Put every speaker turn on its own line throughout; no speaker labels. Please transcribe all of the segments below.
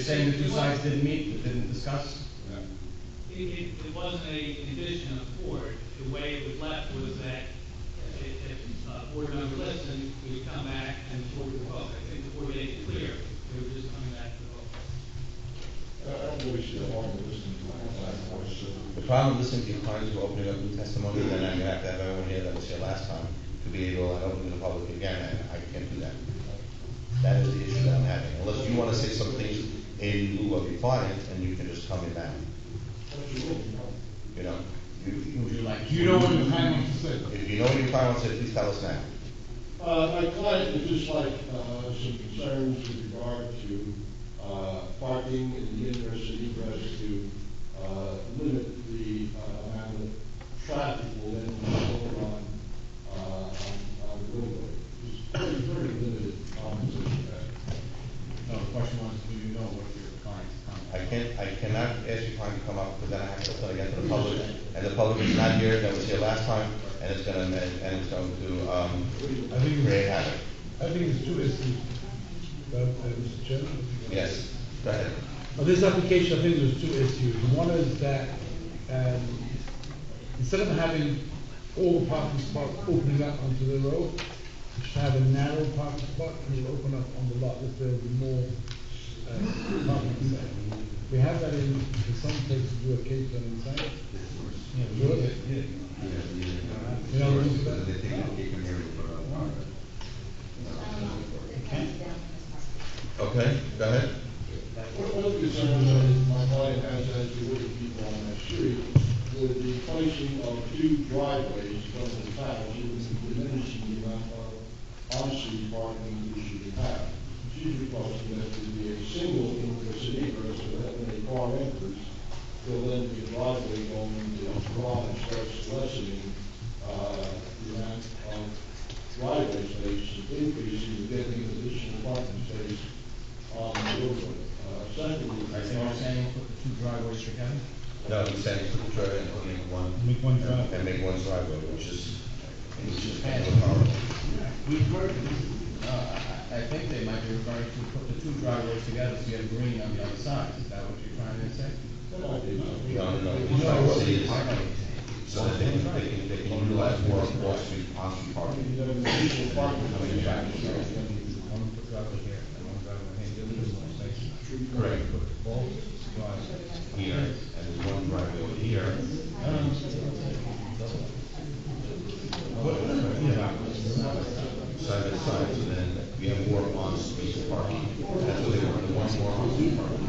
saying the two sides didn't meet, didn't discuss?
It, it, it wasn't a condition of the board, the way it was left was that if, if uh, board member listened, we would come back and the board would vote. I think the board made it clear, they were just coming back to vote.
I don't really see the harm in listening to my voice.
The problem with listening to your client is we're opening up new testimony, and then you have to have everyone here that was here last time to be able to open to the public again, and I can't do that. That is the issue that I'm having, unless you wanna say something in lieu of your client, and you can just come in now, you know? You-
Would you
you-
like?
You know what the client wants to say?
If you know what your client wants to say, please tell us now.
Uh, my client would just like, uh, some concerns with regard to, uh, parking in the university for us to, uh, limit the, uh, amount of traffic will then go on, uh, on, on the roadway. It's pretty, pretty limited opposition there.
No, the question was, do you know what your client's comment?
I can't, I cannot ask your client to come up, because then I have to open again to the public, and the public is not here, that was here last time, and it's gonna, and it's going to, um,
I think,
create
it's-
havoc.
I think it's two issues, uh, uh, Mr. Chairman. if you-
Yes, go ahead.
On this application, I think there's two issues. One is that, um, instead of having all the parking spots opening up onto the road, you should have a narrow parking spot and you open up on the lot, if there will be more, uh, parking there. We have that in, in some places, do a case on inside. Yeah, George? You know,
Okay, go ahead.
One one of the concerns that my client has as to what people on that street, would the placing of two driveways from the house, it would diminish the amount of on-street parking we should have. She's requesting that there be a single ingress and egress, so that when a car enters, there'll then be a driveway going into the garage, thus lessening, uh, the amount of driveway space, increasing the getting additional parking space on the roadway. Uh, Secondly,
Are you saying put the two driveways together?
No, he's saying put the driveway and only one.
Make one drive.
And make one driveway, which is, which is kind of horrible.
We've heard, uh, I, I think they might be referring to put the two driveways together so you have green on the other side. Is that what you're trying to say?
that I did not.
No, no, no, the driveway is, so that they can, they can, they can utilize more off-street, on-street parking.
One foot driveway here, and one driveway here, the other is one section.
Correct.
Put both driveways.
Here, and there's one driveway over here. Side by side, and then we have more on-street parking. That's what they want, they want more on-street parking.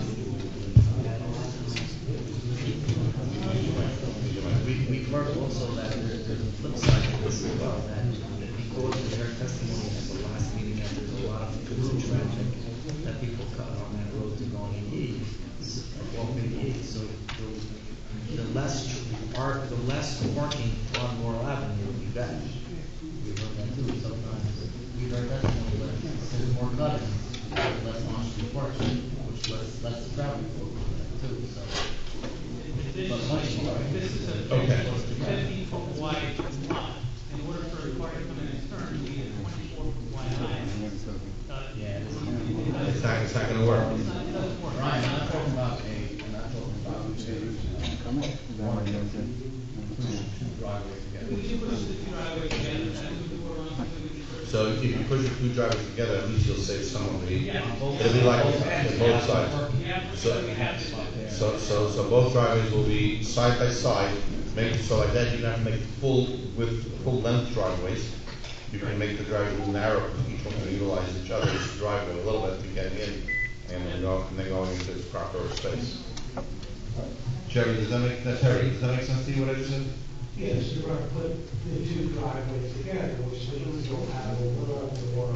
We, we heard also that there- there's a flip side to this as well, that because of their testimony at the last meeting, that there's a lot of through traffic, that people cut on that road to go in E, walk in E, so the, the less, tr- par the less parking on Laurel Avenue would be better. We heard that too, sometimes, we heard that, when we went, there's more cutting, less on-street parking, which less, less traffic over too, so.
Additionally, this is a
Okay.
fifteen foot wide lot, in order for a car to come in and turn, we need a twenty-four foot wide line. Uh,
Yeah.
It's not, it's not gonna work.
It's not, Uh, it doesn't work.
Ryan, I'm not talking about a, I'm not talking about a, one, two driveways
We
together.
can push the two driveways together, that's what the board wants, and we can push-
So if you push your two drivers together, at least you'll save some of the,
Yeah.
it'll be like, on both sides.
We have,
So-
we have to.
So, so, so both driveways will be side by side, make, so like that, you don't have to make full width, full length driveways. You can make the driveway a little narrow, each one can utilize each other's driveway a little bit to get in, and then go, and then going into its proper space. Jerry, does that make, that's Harry, does that make sense to you, what I just said?
Yes, you're going to put the two driveways together, which means you'll have a little more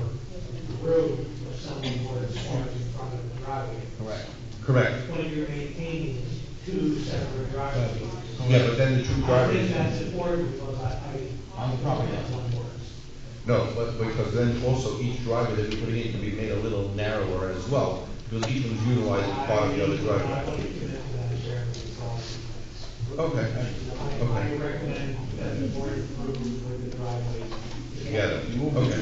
room for someone where it's parked in front of the driveway.
Correct.
Correct.
When you're maintaining two separate driveways.
Yeah, but then the two
I think that's
drivers,
important because I, I.
On the property.
That's one word.
no, but, because then also each driver that you're putting in can be made a little narrower as well, because each one's utilizing part of the other
I
driveway.
would commit to that as chairman, so
Okay,
I, I
okay,
recommend that the board approve with the driveways
together, okay.